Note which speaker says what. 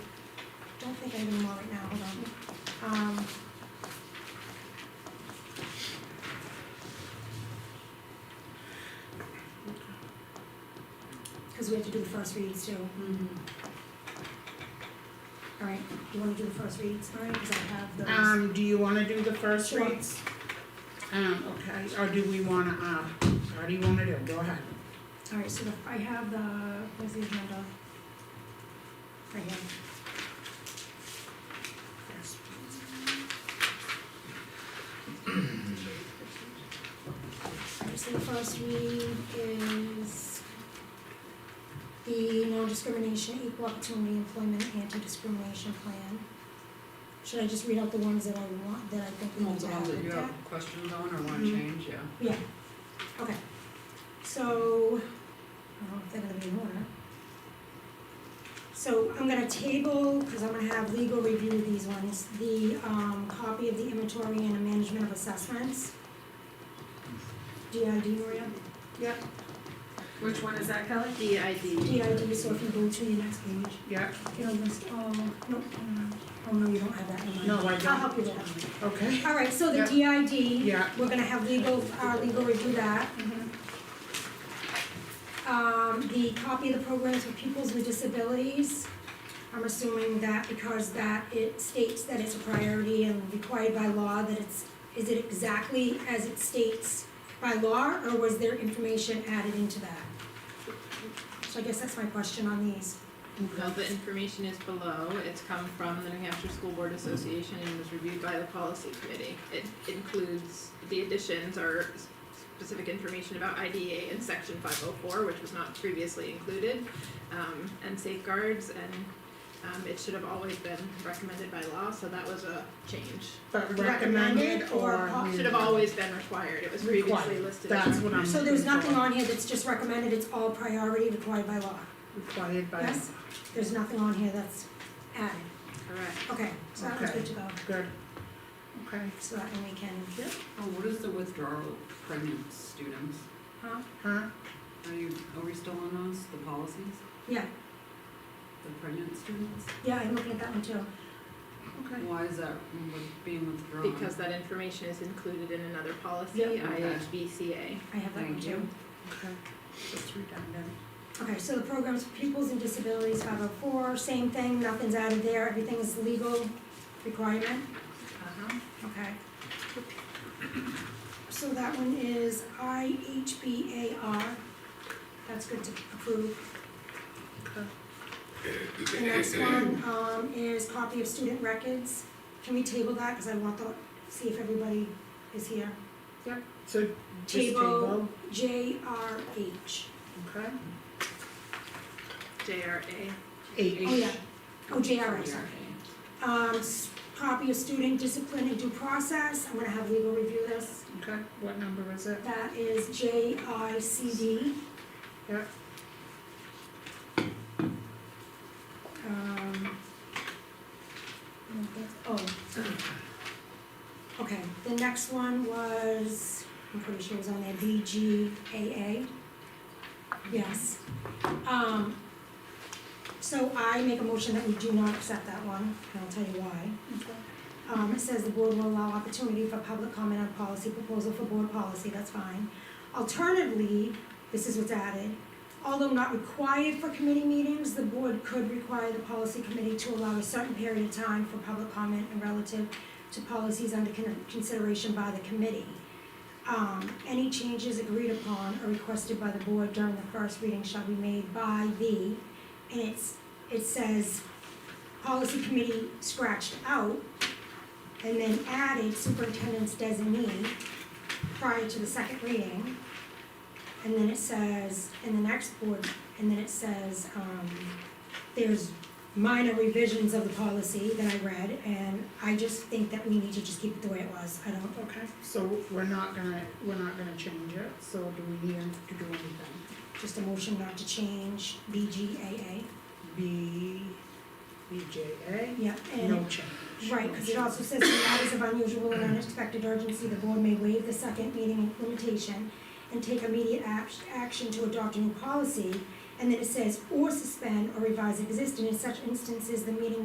Speaker 1: think I even want it now, hold on. Um, Cause we have to do the first reads too, alright, you wanna do the first reads, alright, cause I have those.
Speaker 2: Um, do you wanna do the first
Speaker 1: Sure.
Speaker 2: reads? Um, okay, or do we wanna, uh, or do you wanna do, go ahead.
Speaker 1: Alright, so the- I have the, where's the agenda? Right here.
Speaker 2: First.
Speaker 1: Alright, so the first read is the non-discrimination, equal opportunity employment, anti-discrimination plan. Should I just read out the ones that I want, that I think we need
Speaker 3: Ones
Speaker 1: to
Speaker 3: and
Speaker 1: have
Speaker 3: all that
Speaker 1: looked
Speaker 3: you have
Speaker 1: at?
Speaker 3: questions on or wanna
Speaker 2: Mhm.
Speaker 3: change, yeah.
Speaker 1: Yeah, okay. So, I don't know if they're gonna be in order. So I'm gonna table, cause I'm gonna have legal review these ones, the um copy of the inventory and the management of assessments. DID, Maria?
Speaker 4: Which one is that, Kelly? D I D.
Speaker 1: DID, so if you go to the next page,
Speaker 2: Yeah,
Speaker 1: it'll list all, no, um, oh no, you don't have that in mind.
Speaker 2: No, I
Speaker 1: I'll
Speaker 2: don't.
Speaker 1: help you with
Speaker 2: okay,
Speaker 1: that. Alright, so the DID,
Speaker 2: yeah,
Speaker 1: we're gonna have legal, uh legal review that. um, the copy of the programs for pupils with disabilities. I'm assuming that because that it states that it's a priority and required by law, that it's, is it exactly as it states by law, or was there information added into that? So I guess that's my question on these.
Speaker 4: Well, the information is below, it's come from the New Hampshire School Board Association and was reviewed by the policy committee. It includes, the additions are s- specific information about IDA in section five oh four, which was not previously included, um, and safeguards, and, um, it should have always been recommended by law, so that was a change.
Speaker 2: but
Speaker 1: Recommended
Speaker 2: recommended
Speaker 1: or
Speaker 2: or.
Speaker 1: po-
Speaker 4: Should have always been required, it was previously
Speaker 2: Required.
Speaker 4: listed as
Speaker 2: That's what
Speaker 3: Mm-hmm.
Speaker 2: I'm.
Speaker 1: So there's
Speaker 2: looking
Speaker 1: nothing
Speaker 2: for.
Speaker 1: on here that's just recommended, it's all priority required by law.
Speaker 2: Required by.
Speaker 1: Yes? There's nothing on here that's added.
Speaker 4: correct.
Speaker 1: Okay, so that one's
Speaker 2: Okay.
Speaker 1: good to go,
Speaker 2: Good, okay,
Speaker 1: so that one we can,
Speaker 3: Oh, what is the withdrawal of pregnant students?
Speaker 1: huh?
Speaker 2: huh,
Speaker 3: Are you, are we still on those, the policies,
Speaker 1: Yeah,
Speaker 3: the pregnant students?
Speaker 1: yeah, I'm looking at that one too.
Speaker 2: okay,
Speaker 3: Why is that with- being withdrawn?
Speaker 4: Because that information is included in another policy,
Speaker 1: Yeah.
Speaker 4: IHBCA.
Speaker 1: I have that one
Speaker 3: Thank
Speaker 1: too.
Speaker 3: you.
Speaker 2: okay, that's redundant.
Speaker 1: Okay, so the programs for pupils and disabilities, five oh four, same thing, nothing's added there, everything is legal requirement,
Speaker 4: Uh-huh.
Speaker 1: okay. So that one is I H B A R, that's good to approve.
Speaker 2: Okay.
Speaker 1: The next one, um, is copy of student records, can we table that, cause I want to see if everybody is here.
Speaker 2: So just
Speaker 1: Table.
Speaker 2: table,
Speaker 1: J R H,
Speaker 2: okay,
Speaker 4: JRA.
Speaker 2: eight,
Speaker 1: oh yeah, oh, JRA, sorry.
Speaker 3: Yeah.
Speaker 1: um, s- copy of student discipline and due process, I'm gonna have legal review this.
Speaker 2: okay, what number is it?
Speaker 1: That is J I C D.
Speaker 2: Yeah.
Speaker 1: Um. no, that's- Oh. Okay, the next one was, I'm pretty sure it was on there, B G A A. Yes. Um, so I make a motion that we do not accept that one, and I'll tell you why.
Speaker 2: Okay.
Speaker 1: Um, it says the board will allow opportunity for public comment on policy proposal for board policy, that's fine. Alternatively, this is what's added, although not required for committee meetings, the board could require the policy committee to allow a certain period of time for public comment and relative to policies under con- consideration by the committee. Um, any changes agreed upon or requested by the board during the first reading shall be made by the, and it's, it says, policy committee scratched out, and then added superintendent's designee prior to the second reading. And then it says, in the next board, and then it says, um, there's minor revisions of the policy that I read, and I just think that we need to just keep it the way it was, I don't,
Speaker 2: Okay, so we're not gonna, we're not gonna change it, so do we need to do anything?
Speaker 1: just a motion not to change BGAA.
Speaker 2: B, BJA,
Speaker 1: Yeah, and
Speaker 2: no change.
Speaker 1: Right, because it also says in matters of unusual and unexpected urgency, the board may waive the second meeting limitation and take immediate act- action to adopt a new policy, and then it says, or suspend or revise existing, in such instances, the meeting